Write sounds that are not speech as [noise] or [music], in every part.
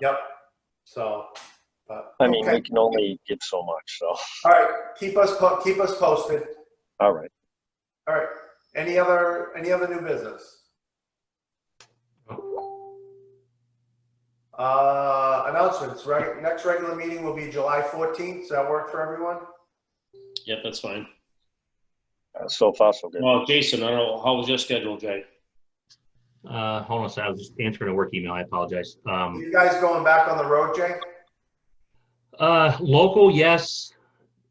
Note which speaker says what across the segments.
Speaker 1: Yep, so, but.
Speaker 2: I mean,
Speaker 1: okay.
Speaker 2: we can only give so much, so,
Speaker 1: All right, keep us, po- keep us posted.
Speaker 2: all right.
Speaker 1: All right, any other, any other new business? Uh, announcements, right? Next regular meeting will be July 14th. Does that work for everyone?
Speaker 3: Yep, that's fine.
Speaker 2: Uh, So far, so good.
Speaker 3: Well, Jason, I don't know, how was your schedule, Jay?
Speaker 4: Uh, hold on a second. I was just answering a work email. I apologize. Um,
Speaker 1: You guys going back on the road, Jay?
Speaker 4: uh, local, yes.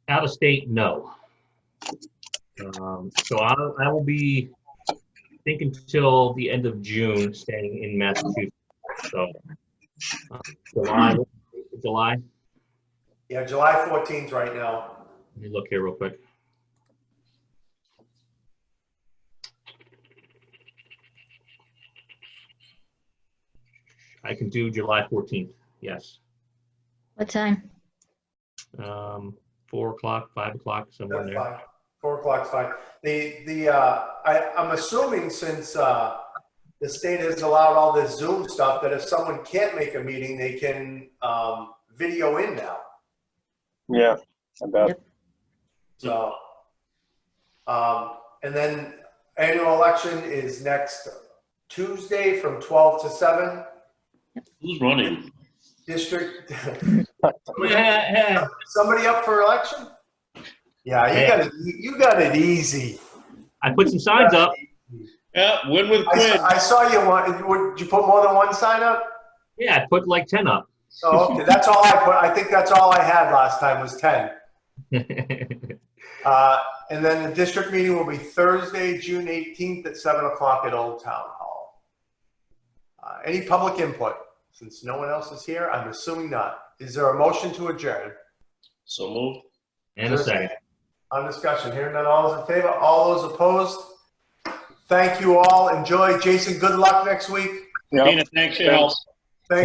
Speaker 4: Out of state, no. Um, so I, I will be, I think until the end of June, staying in Massachusetts. So uh, July, July.
Speaker 1: Yeah, July 14th right now.
Speaker 4: Let me look here real quick. I can do July 14th, yes.
Speaker 5: What time?
Speaker 4: um, four o'clock, five o'clock, somewhere in
Speaker 1: That's
Speaker 4: there.
Speaker 1: fine. Four o'clock's fine. The, the, uh, I, I'm assuming since, uh, the state has allowed all this Zoom stuff, that if someone can't make a meeting, they can, um, video in now.
Speaker 2: Yeah, I bet.
Speaker 4: Hmm.
Speaker 1: So, um, and then annual election is next Tuesday from twelve to seven.
Speaker 3: Who's running?
Speaker 1: District, [laughs]
Speaker 4: Yeah,
Speaker 1: somebody up for election? Yeah, you got it, you got it easy.
Speaker 4: [laughs] I put some signs up.
Speaker 3: Yeah, win with
Speaker 1: I
Speaker 3: Quinn.
Speaker 1: saw, I saw you one, would you put more than one sign up?
Speaker 4: Yeah, I put like ten up. [laughs]
Speaker 1: Oh, okay, that's all I put, I think that's all I had last time was ten. Uh, and then the district meeting will be Thursday, June eighteenth at seven o'clock at Old Town Hall. Uh, any public input? Since no one else is here, I'm assuming not. Is there a motion to adjourn?
Speaker 3: So move.
Speaker 4: And a second.
Speaker 1: On discussion, hearing none, all those in favor, all those opposed? Thank you all, enjoy, Jason, good luck next week.
Speaker 2: Yeah.
Speaker 3: Dana, thanks for your help.
Speaker 2: Thanks.